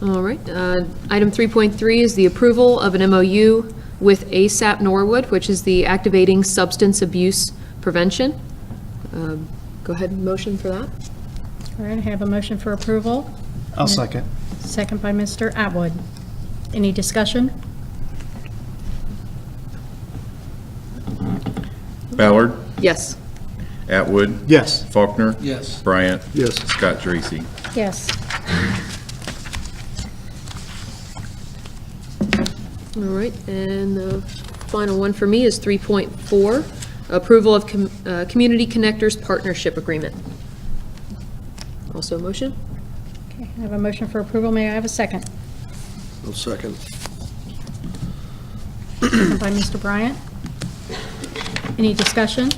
All right, uh, item 3.3 is the approval of an MOU with ASAP Norwood, which is the Activating Substance Abuse Prevention. Um, Go ahead, motion for that? All right, I have a motion for approval, I'll second. second by Mr. Atwood. Any discussion? Ballard, Yes. Atwood, Yes. Faulkner. Yes. Bryant. Yes. Scott Dracy. Yes. All right, and the final one for me is 3.4, approval of Com- uh, Community Connectors Partnership Agreement. Also a motion? Okay, I have a motion for approval. May I have a second? I'll second. Second by Mr. Bryant. Any discussion?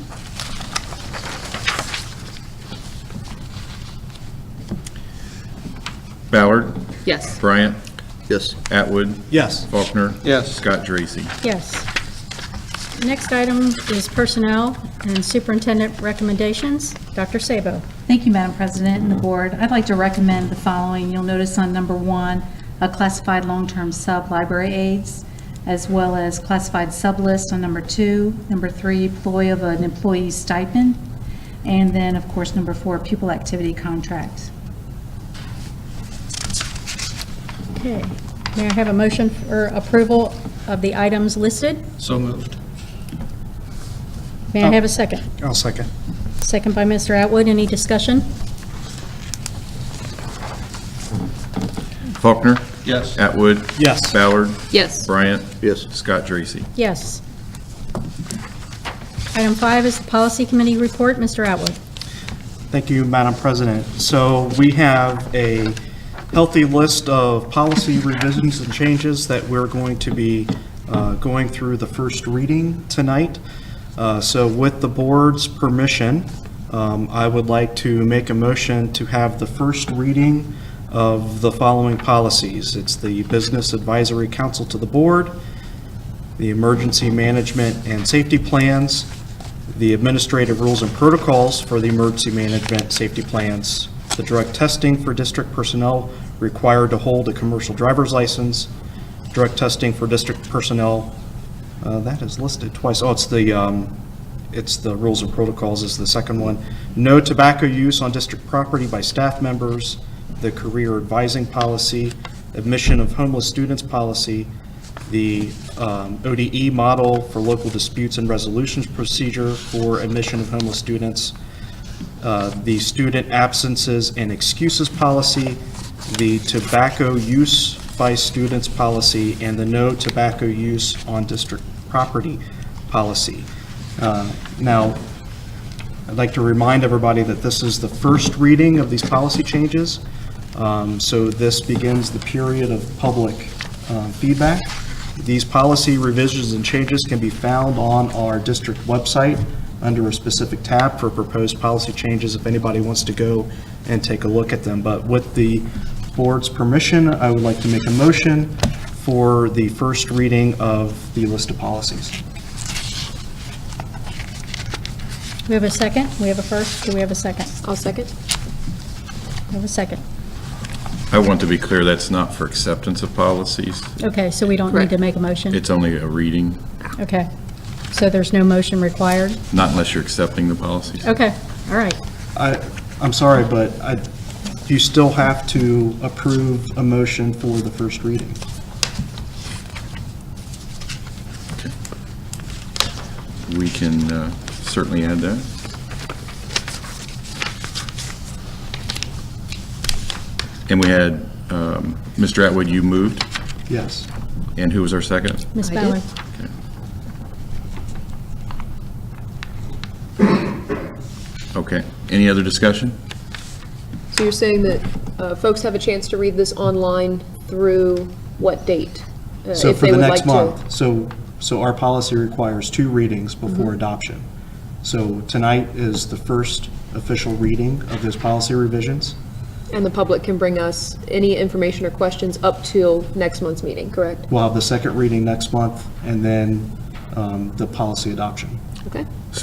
Ballard, Yes. Bryant, Yes. Atwood, Yes. Faulkner. Yes. Scott Dracy. Yes. Next item is personnel and superintendent recommendations. Dr. Sabo. Thank you, Madam President and the board. I'd like to recommend the following. You'll notice on number one, uh, classified long-term sub-library aides, as well as classified sub-list on number two, number three, ploy of an employee stipend, and then, of course, number four, pupil activity contract. Okay, may I have a motion for approval of the items listed? So moved. May I have a second? I'll second. Second by Mr. Atwood. Any discussion? Faulkner, Yes. Atwood. Yes. Ballard, Yes. Bryant. Yes. Scott Dracy. Yes. Item five is the Policy Committee report. Mr. Atwood. Thank you, Madam President. So we have a healthy list of policy revisions and changes that we're going to be uh, going through the first reading tonight. Uh, So with the board's permission, um, I would like to make a motion to have the first reading of the following policies. It's the Business Advisory Council to the Board, the Emergency Management and Safety Plans, the administrative rules and protocols for the emergency management safety plans, the drug testing for district personnel required to hold a commercial driver's license, drug testing for district personnel, uh, that is listed twice. Oh, it's the, um, it's the rules and protocols is the second one. No tobacco use on district property by staff members, the career advising policy, admission of homeless students policy, the um, ODE model for local disputes and resolutions procedure for admission of homeless students, uh, the student absences and excuses policy, the tobacco use by students policy, and the no tobacco use on district property policy. Uh, Now, I'd like to remind everybody that this is the first reading of these policy changes, Um, so this begins the period of public uh, feedback. These policy revisions and changes can be found on our district website under a specific tab for proposed policy changes if anybody wants to go and take a look at them. But with the board's permission, I would like to make a motion for the first reading of the list of policies. We have a second? We have a first? Do we have a second? I'll second. We have a second. I want to be clear, that's not for acceptance of policies. Okay, so we don't need to Correct. make a motion? It's only a reading, Okay. So there's no motion required? not unless you're accepting the policies. Okay, all right. I, I'm sorry, but I, you still have to approve a motion for the first reading. We can uh, certainly add that. And we had, um, Mr. Atwood, you moved, Yes. and who was our second? Ms. I did. Ballard? Okay. Any other discussion? So you're saying that uh, folks have a chance to read this online through what date? uh, So if for they the would next like to? month, so, so our policy requires two readings Mm-hmm. before adoption. So tonight is the first official reading of those policy revisions. And the public can bring us any information or questions up till next month's meeting, correct? We'll have the second reading next month, and then um, the policy adoption. Okay?